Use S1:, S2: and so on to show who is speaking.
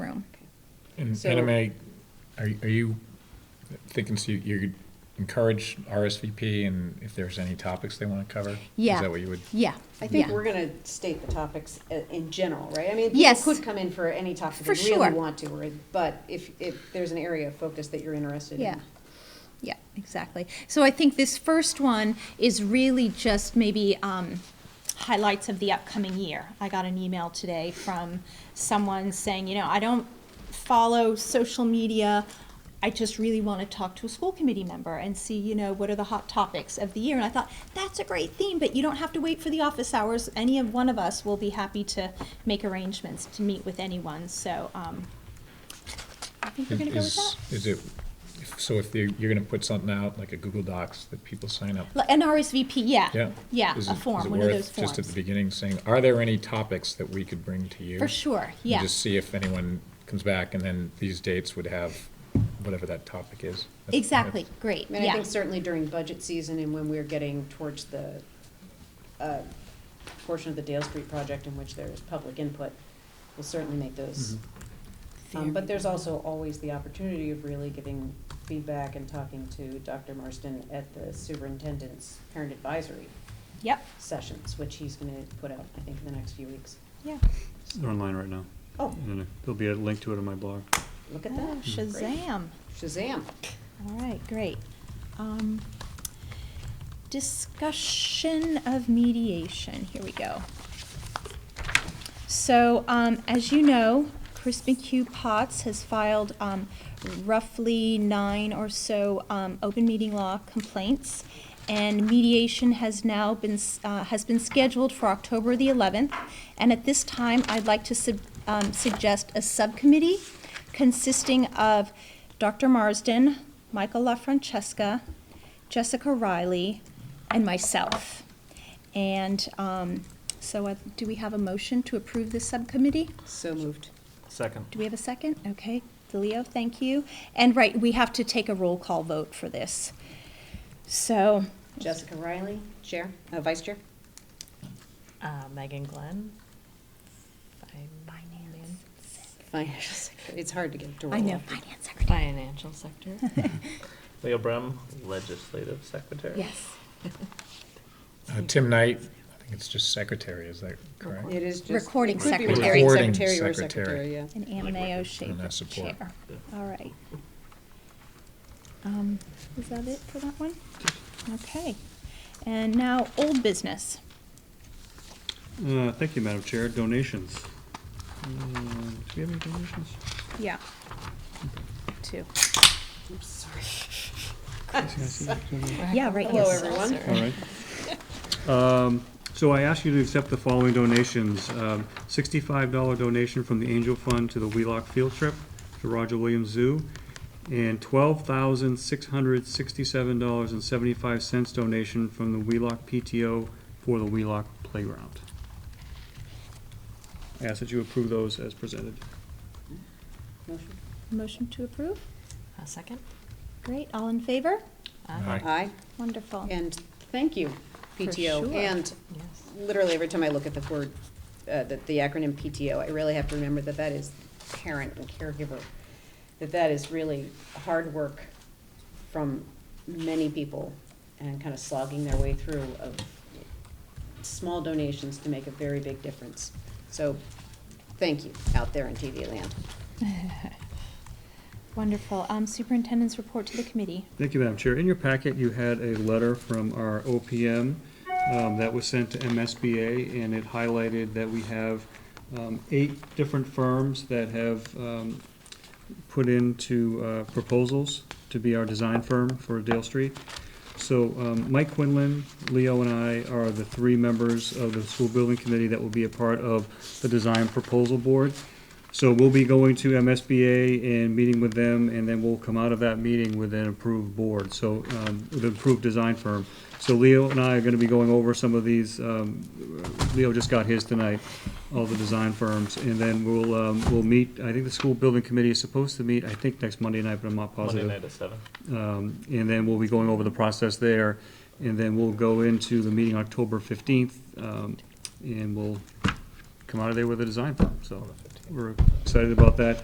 S1: And
S2: So-
S1: Anime, are, are you thinking, so you- you encourage RSVP and if there's any topics they want to cover?
S3: Yeah.
S1: Is that what you would,
S3: Yeah.
S2: I think
S3: yeah.
S2: we're gonna state the topics i- in general, right? I mean,
S3: Yes.
S2: people could come in for any topic
S3: For
S2: they really
S3: sure.
S2: want to, or, but if, if there's an area of focus that you're interested in.
S3: Yeah. Yeah, exactly. So I think this first one is really just maybe um, highlights of the upcoming year. I got an email today from someone saying, you know, I don't follow social media. I just really want to talk to a school committee member and see, you know, what are the hot topics of the year. And I thought, that's a great theme, but you don't have to wait for the office hours. Any of one of us will be happy to make arrangements to meet with anyone. So um, I think we're going to go with that.
S1: is, is it, if- so if you- you're going to put something out, like a Google Docs that people sign up?
S3: Like An RSVP, yeah.
S1: Yeah. Is it-
S3: a
S1: is
S3: form,
S1: it
S3: one of
S1: worth
S3: those
S1: Just at the
S3: forms.
S1: beginning saying, are there any topics that we could bring to you?
S3: For sure,
S1: And
S3: yeah.
S1: Just see if anyone comes back and then these dates would have whatever that topic is. That's-
S3: Exactly, great,
S2: I mean, I
S3: yeah.
S2: think certainly during budget season and when we're getting towards the uh, portion of the Dale Street project in which there is public input, we'll certainly make those. Um, But there's also always the opportunity of really giving feedback and talking to Dr. Marston at the superintendent's parent advisory
S3: Yep,
S2: sessions, which he's gonna put out, I think, in the next few weeks.
S3: yeah.
S4: They're online right now.
S2: Oh,
S4: And There'll be a link to it on my blog.
S2: look at
S3: Oh,
S2: that.
S3: Shazam.
S2: Shazam.
S3: All right, great. Um, Discussion of mediation, here we go. So, um, as you know, Chris McHugh Potts has filed, um, roughly nine or so, um, open meeting law complaints. And mediation has now been, s- uh, has been scheduled for October the eleventh. And at this time, I'd like to sub, um, suggest a subcommittee consisting of Dr. Marsden, Michael LaFrancesca, Jessica Riley, and myself. And um, so, uh, do we have a motion to approve this subcommittee?
S2: So moved.
S4: Second.
S3: Do we have a second? Okay, DeLeo, thank you. And right, we have to take a roll call vote for this. So,
S2: Jessica Riley, Chair, uh, Vice Chair?
S5: Uh, Megan Glenn. Fin-
S3: Finance.
S2: Financial Secretary. It's hard to get to roll.
S3: I know, Finance Secretary.
S5: Financial sector.
S6: Leo Brem, Legislative Secretary.
S3: Yes.
S1: Uh, Tim Knight, I think it's just secretary, is that correct?
S2: It is just.
S3: Recording
S2: it could be
S3: secretary.
S1: Recording
S2: Secretary or
S1: secretary.
S2: secretary, yeah.
S3: And Anne Mayo Schaefer,
S1: And I support.
S3: Chair.
S6: Yeah.
S3: All right. Um, Is that it for that one? Okay. And now, old business.
S4: Uh, thank you, Madam Chair. Donations. Uh, Do we have any donations?
S3: Yeah. Two.
S2: I'm sorry.
S3: Yeah, right,
S2: Hello,
S3: yes.
S2: everyone.
S4: All right. Um, So I ask you to accept the following donations. Um, Sixty-five dollar donation from the Angel Fund to the Wheelock Field Trip to Roger Williams Zoo, and twelve thousand six hundred sixty-seven dollars and seventy-five cents donation from the Wheelock PTO for the Wheelock Playground. I ask that you approve those as presented.
S2: Motion.
S3: Motion to approve?
S5: A second?
S3: Great, all in favor?
S1: Aye.
S2: Aye,
S3: Wonderful.
S2: and thank you,
S3: For
S2: PTO.
S3: sure.
S2: And
S5: Yes.
S2: literally, every time I look at the word, uh, the, the acronym PTO, I really have to remember that that is parent and caregiver. That that is really hard work from many people and kind of slogging their way through of small donations to make a very big difference. So, thank you out there in TV land.
S3: Wonderful. Um, Superintendent's report to the committee.
S4: Thank you, Madam Chair. In your packet, you had a letter from our OPM um, that was sent to MSBA, and it highlighted that we have um, eight different firms that have um, put into uh, proposals to be our design firm for Dale Street. So um, Mike Quinlan, Leo, and I are the three members of the school building committee that will be a part of the design proposal board. So we'll be going to MSBA and meeting with them, and then we'll come out of that meeting with an approved board, so, um, with an approved design firm. So Leo and I are gonna be going over some of these, um, Leo just got his tonight, all the design firms, and then we'll, um, we'll meet, I think the school building committee is supposed to meet, I think, next Monday night, but I'm not
S6: Monday
S4: positive.
S6: night at seven.
S4: Um, And then we'll be going over the process there, and then we'll go into the meeting October fifteenth, um, and we'll come out of there with a design firm, so we're excited about that.